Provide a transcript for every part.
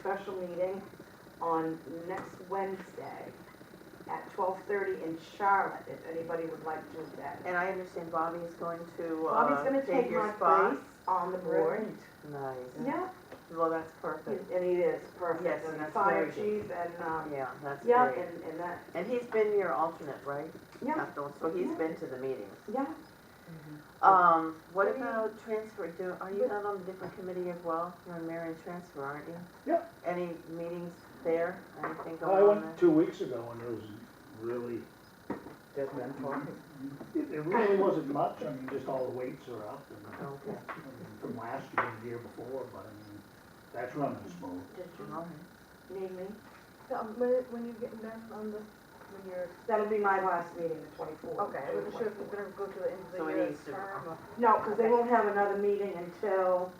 special meeting on next Wednesday at twelve thirty in Charlotte, if anybody would like to attend. And I understand Bobby is going to, Bobby's uh, gonna take take your my spot. place on the board. Nice. Yeah, Well, that's perfect. and he is Yes, perfect, and and the that's fire very chief and, um, Yeah, that's yeah, great. and, and that, And he's been your alternate, right? yeah, After- So he's Yeah. been to the meetings. yeah. Um, what What do you- about transfer, do, are you not on a different committee as well? You're on Marion Transfer, aren't you? Yep. Any meetings there, anything I going on went there? two weeks ago and it was really, Dead man talking. it, it really wasn't much, I mean, just all the weights are up and Okay. I mean, from last year and the year before, but I mean, that's running smooth. Did you Alright. need me? So, um, when, when you get done on this, when you're, That'll be my last meeting, the twenty-fourth. okay, I wasn't sure if you're gonna go to the end of So the it year needs to- term or. No, because they won't have another meeting until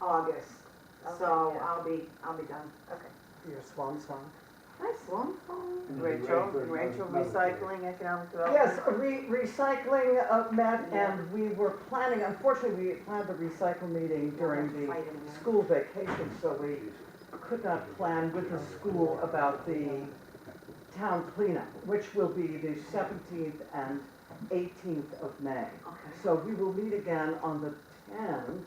August, so uh-huh. Okay, yeah. I'll be, I'll be done. uh, Your swan song. Nice one, Paul. And it'll be ready Rachel, for another- Rachel another year. Recycling Economic Development? Yes, re- recycling, uh, Matt, and we were planning, unfortunately, we planned the recycle meeting during the Fight in there. school vacation, so we could not plan with the school about the town cleanup, which will be the seventeenth and eighteenth of May. Okay. So we will meet again on the tenth,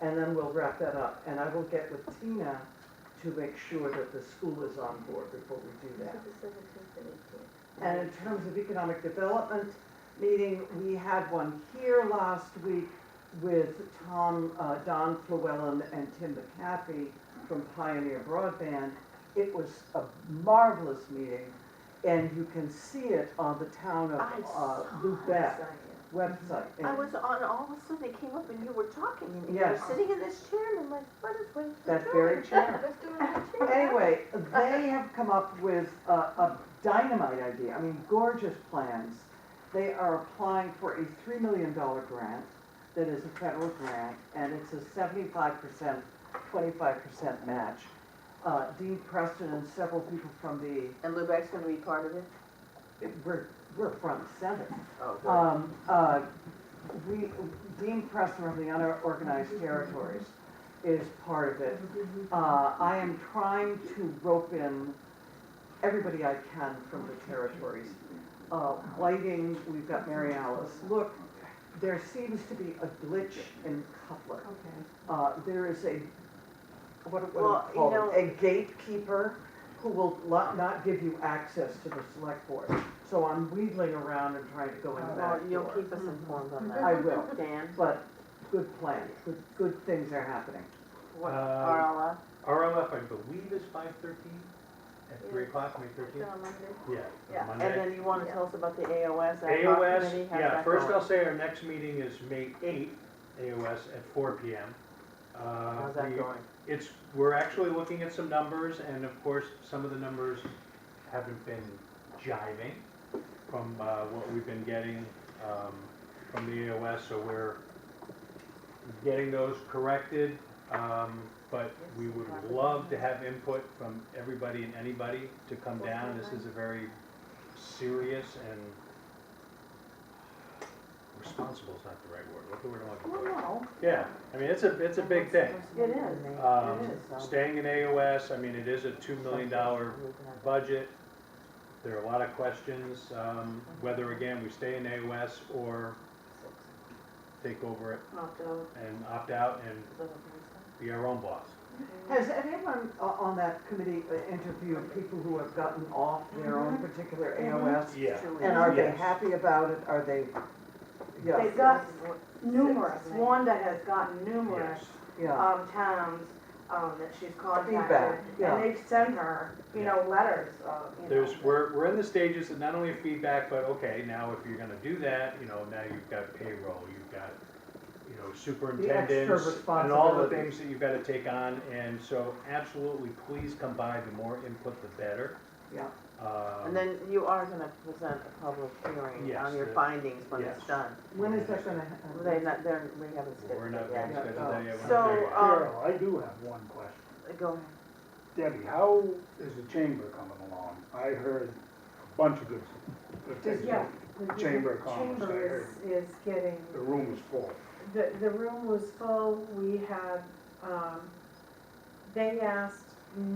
and then we'll wrap that up. And I will get with Tina to make sure that the school is on board before we do that. The seventeenth and eighteenth. And in terms of economic development meeting, we had one here last week with Tom, uh, Don Flewellen and Tim McCaffey from Pioneer Broadband. It was a marvelous meeting, and you can see it on the town of I uh, saw Lubec website. I And was on, all of a sudden it came up and you were talking and you were Yes. sitting in this chair and I'm like, what is, what is she That doing? very chair. Let's do another check. Anyway, they have come up with a, a dynamite idea, I mean gorgeous plans. They are applying for a three million dollar grant that is a federal grant, and it's a seventy-five percent, twenty-five percent match. Uh, Dean Preston and several people from the, And Lubec's gonna be part of it? we're, we're front and center. Oh, good. Um, uh, we, Dean Preston of the Unorganized Territories is part of it. Uh, I am trying to rope in everybody I can from the territories. Uh, lighting, we've got Mary Alice. Look, there seems to be a glitch in Cutler. Uh, there is a, what, Well, what do you you call know- it? A gatekeeper who will not, not give you access to the select board. So I'm wheedling around and trying to go in the Well, back Oh, you'll door. keep us informed on I that. will, Dan, but good plan, good, good things are happening. what, Uh, RLF? RLF, I believe is five thirteen, at three o'clock, May Let's do thirteenth. on Monday. Yeah, Yeah. on And Monday. then you wanna tell us about the AOS, ad hoc committee, AOS, how's yeah, that first going? I'll say our next meeting is May eighth, AOS at four P M. Uh, How's that going? It's, we're actually looking at some numbers, and of course, some of the numbers haven't been jiving from uh, what we've been getting um, from the AOS, so we're getting those corrected. um, But we would love to have input from everybody and anybody to come down. This is a very serious and responsible is not the right word. What the word am I looking for? Well, Yeah, I mean, it's a, it's a big thing. It is. Um, It is, so- Staying in AOS, I mean, it is a two million dollar budget. There are a lot of questions, um, whether again, we stay in AOS or take over it Not though, and opt out and be our own boss. Has anyone o- on that committee uh, interviewed people who have gotten off their own Mm-hmm. particular AOS? Yeah. And are they Yes. happy about it? Are they, yeah, They've got numerous, Wanda has gotten numerous, Yes. yeah. um, towns, um, that she's contacted. Feedback, yeah. And they've sent her, you know, letters of, you know. There's, we're, we're in the stages of not only feedback, but okay, now if you're gonna do that, you know, now you've got payroll, you've got, you know, superintendents and all the responsibilities. things that you've gotta take on, and so absolutely, please come by, the more input, the better. Yeah. Um, And then you are gonna present a public hearing Yes, on your the- findings when it's yes. done. When is that gonna They're happen? not, they're, we haven't We're scheduled not it gonna yet. Yeah. oh. schedule that yet. we're not So, there yet. um, Carol, I do have one question. Go ahead. Debbie, how is the chamber coming along? I heard a bunch of good, good things. Yeah. Chamber of Commerce, I Chamber is, is getting, The room was full. the, the room was full, we had, um, they asked